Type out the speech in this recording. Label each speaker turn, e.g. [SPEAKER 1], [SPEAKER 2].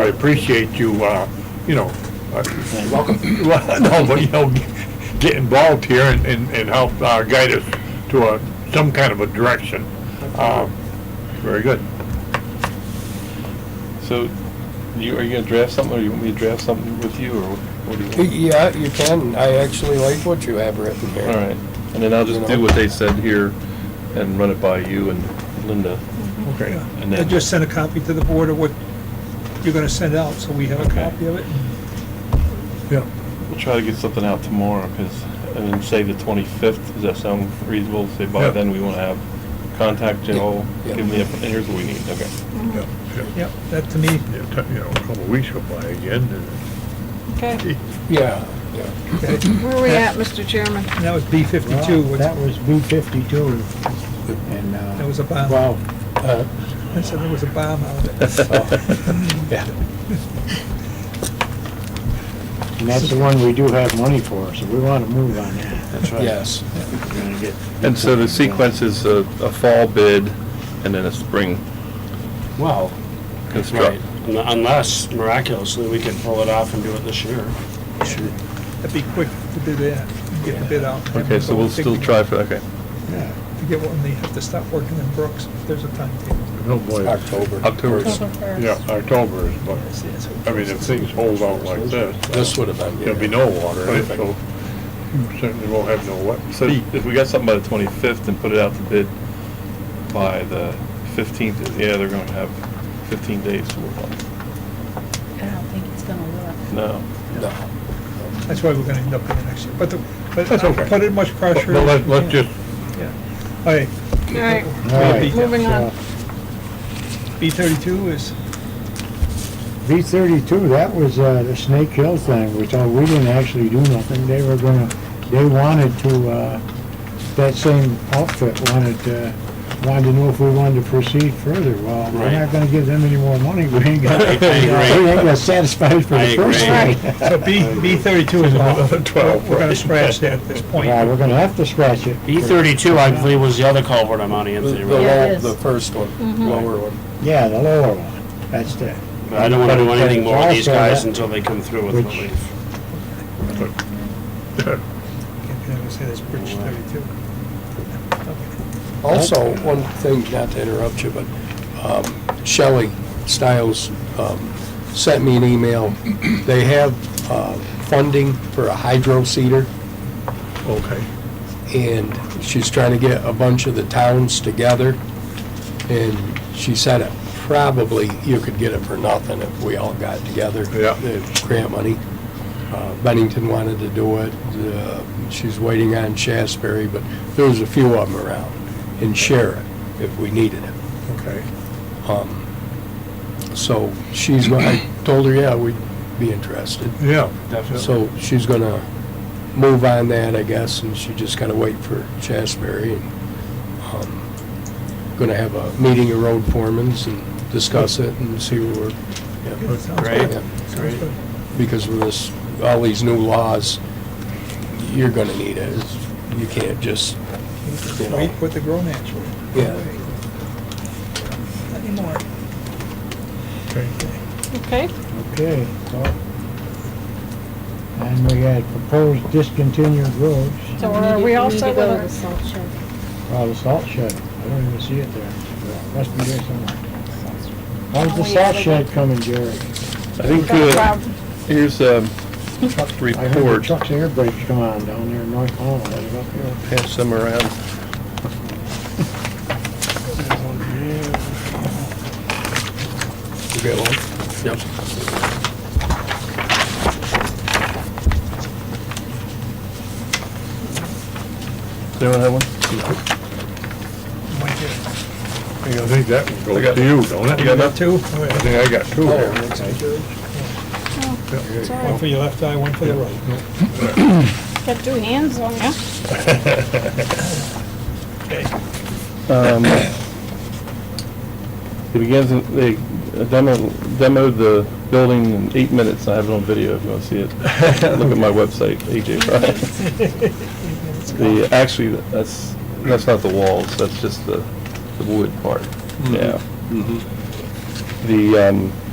[SPEAKER 1] I appreciate you, uh, you know, uh, welcome, no, but, you know, get involved here and, and and help uh, guide us to a, some kind of a direction. Uh, Very good.
[SPEAKER 2] So, you, are you gonna draft something, or you want me to draft something with you, or what do you want?
[SPEAKER 3] Yeah, you can. I actually like what you have written here.
[SPEAKER 2] All right, and then I'll just do what they said here and run it by you and Linda.
[SPEAKER 1] Okay.
[SPEAKER 2] And
[SPEAKER 4] And
[SPEAKER 2] then,
[SPEAKER 4] just send a copy to the board of what you're gonna send out, so we have a
[SPEAKER 2] Okay.
[SPEAKER 4] copy of it.
[SPEAKER 1] Yeah.
[SPEAKER 2] we'll try to get something out tomorrow, because, and then say the twenty-fifth, does that sound reasonable? Say by
[SPEAKER 1] Yeah.
[SPEAKER 2] then, we wanna have contact Joel,
[SPEAKER 3] Yeah.
[SPEAKER 2] give him the, inf- and here's what we need, okay.
[SPEAKER 1] Yeah, yeah.
[SPEAKER 4] Yep, that to me,
[SPEAKER 1] Yeah, t- You know, a couple of weeks go by again,
[SPEAKER 5] Okay,
[SPEAKER 1] and
[SPEAKER 3] Yeah, yeah.
[SPEAKER 5] where are we at, Mr. Chairman?
[SPEAKER 4] and that was B fifty-two,
[SPEAKER 6] Well,
[SPEAKER 4] which-
[SPEAKER 6] That was B fifty-two, and, uh.
[SPEAKER 4] That was a bomb.
[SPEAKER 6] Well,
[SPEAKER 3] Uh,
[SPEAKER 4] I said there was a bomb out of it.
[SPEAKER 3] Yeah.
[SPEAKER 6] and that's the one we do have money for, so we want to move on that. That's
[SPEAKER 3] Yes.
[SPEAKER 6] We're gonna get-
[SPEAKER 2] And so the sequence is a, a fall bid and then a spring
[SPEAKER 6] Well,
[SPEAKER 2] construct.
[SPEAKER 7] Right, Un- unless miraculously we can pull it off and do it this year.
[SPEAKER 4] That'd be quick to do that, get the bid out.
[SPEAKER 2] Okay, so we'll still try for, okay.
[SPEAKER 6] yeah,
[SPEAKER 4] To get one, they have to stop working in Brooks, if there's a timetable.
[SPEAKER 1] no boy.
[SPEAKER 3] October.
[SPEAKER 2] October.
[SPEAKER 1] Yeah, October is, but, I mean, if things hold out like this.
[SPEAKER 3] This would have been.
[SPEAKER 1] There'll be no water, so you certainly won't have no wet
[SPEAKER 2] So
[SPEAKER 1] feet.
[SPEAKER 2] if we got something by the twenty-fifth and put it out to bid by the fifteenth, yeah, they're gonna have fifteen days to work on it.
[SPEAKER 8] I don't think it's gonna work.
[SPEAKER 2] No.
[SPEAKER 3] No.
[SPEAKER 4] That's why we're gonna end up in the next year, but, the- but
[SPEAKER 1] That's okay.
[SPEAKER 4] not put it much
[SPEAKER 1] But
[SPEAKER 4] pressure.
[SPEAKER 1] but let- let's just,
[SPEAKER 4] Yeah. All right,
[SPEAKER 5] All right,
[SPEAKER 6] all right.
[SPEAKER 5] moving on.
[SPEAKER 4] B thirty-two is,
[SPEAKER 6] B thirty-two, that was, uh, the Snake Hill thing, we told, we didn't actually do nothing, they were gonna, they wanted to, uh, that same outfit wanted, uh, wanted to know if we wanted to proceed further, well, we're
[SPEAKER 7] Right.
[SPEAKER 6] not gonna give them any more money, we ain't got,
[SPEAKER 7] I
[SPEAKER 6] we
[SPEAKER 7] agree.
[SPEAKER 6] ain't got satisfied for
[SPEAKER 7] I
[SPEAKER 6] the first
[SPEAKER 7] agree.
[SPEAKER 6] one.
[SPEAKER 5] Right.
[SPEAKER 4] so B, B thirty-two is off.
[SPEAKER 1] Another 12,
[SPEAKER 4] We're gonna
[SPEAKER 1] right.
[SPEAKER 4] scratch that at this point.
[SPEAKER 6] Yeah, we're gonna have to scratch it.
[SPEAKER 7] B E thirty-two, I believe, was the other culvert I'm on,
[SPEAKER 3] The
[SPEAKER 7] Anthony,
[SPEAKER 3] the
[SPEAKER 7] right?
[SPEAKER 8] Yeah, it
[SPEAKER 3] low,
[SPEAKER 8] is.
[SPEAKER 3] the first one, lower one.
[SPEAKER 6] Yeah, the lower one, that's the,
[SPEAKER 7] But I don't wanna do
[SPEAKER 6] But-
[SPEAKER 7] anything
[SPEAKER 6] but
[SPEAKER 7] more with these
[SPEAKER 6] also that-
[SPEAKER 7] guys until they come through with
[SPEAKER 6] Which-
[SPEAKER 7] relief.
[SPEAKER 4] Can't never say this bridge thirty-two.
[SPEAKER 3] Also, one thing, not to interrupt you, but um, Shelley Stiles um, sent me an email. They have uh, funding for a hydro seeder,
[SPEAKER 1] okay.
[SPEAKER 3] and she's trying to get a bunch of the towns together. And she said it, probably you could get it for nothing if we all got together.
[SPEAKER 1] Yeah.
[SPEAKER 3] the Grant money. Uh, Bennington wanted to do it. uh, She's waiting on Shasberry, but there was a few of them around. And Sharon, if we needed it.
[SPEAKER 1] Okay.
[SPEAKER 3] Um, So she's, go- I told her, yeah, we'd be interested.
[SPEAKER 1] Yeah, definitely.
[SPEAKER 3] So she's gonna move on that, I guess, and she just gotta wait for Shasberry. and um, Gonna have a meeting of road foremans and discuss it and see where
[SPEAKER 4] Okay.
[SPEAKER 3] we're,
[SPEAKER 4] Good, sounds
[SPEAKER 3] yeah,
[SPEAKER 4] good.
[SPEAKER 3] yeah.
[SPEAKER 4] Sounds good.
[SPEAKER 3] Because with this, all these new laws, you're gonna need it. You can't just, you know.
[SPEAKER 4] Wait with the grown man show.
[SPEAKER 3] Yeah.
[SPEAKER 4] Not anymore.
[SPEAKER 5] Okay,
[SPEAKER 6] okay, so. And we had proposed discontinued roads,
[SPEAKER 5] So are we all set with
[SPEAKER 8] go
[SPEAKER 5] it?
[SPEAKER 8] to the salt shed.
[SPEAKER 6] well, the salt shed, I don't even see it there, must be there somewhere. How's the
[SPEAKER 8] Oh, yeah,
[SPEAKER 6] salt
[SPEAKER 8] they-
[SPEAKER 6] shed coming, Jerry?
[SPEAKER 2] I think,
[SPEAKER 5] got a
[SPEAKER 2] uh,
[SPEAKER 5] problem.
[SPEAKER 2] here's, um,
[SPEAKER 6] Truck- I heard
[SPEAKER 2] report,
[SPEAKER 6] the truck's air brakes come on down there in North Hall, I was up here.
[SPEAKER 2] pass them around.
[SPEAKER 3] You get one? Yep.
[SPEAKER 2] Does anyone have one?
[SPEAKER 4] Might get it.
[SPEAKER 1] I think- I think that one
[SPEAKER 2] I
[SPEAKER 1] goes
[SPEAKER 2] got-
[SPEAKER 1] to you, don't it?
[SPEAKER 2] You got enough?
[SPEAKER 4] Two? All
[SPEAKER 1] I
[SPEAKER 4] right.
[SPEAKER 1] think I got two
[SPEAKER 3] Oh,
[SPEAKER 1] there.
[SPEAKER 5] It's all
[SPEAKER 4] One
[SPEAKER 5] right.
[SPEAKER 4] for your left eye, one for the right.
[SPEAKER 5] Got two hands on ya.
[SPEAKER 2] Um, It begins, they demo demoed the building in eight minutes, I have it on video if you want to see it. Look at my website, AJ Fry. The, actually, that's, that's not the walls, that's just the, the wood part, yeah. The, um,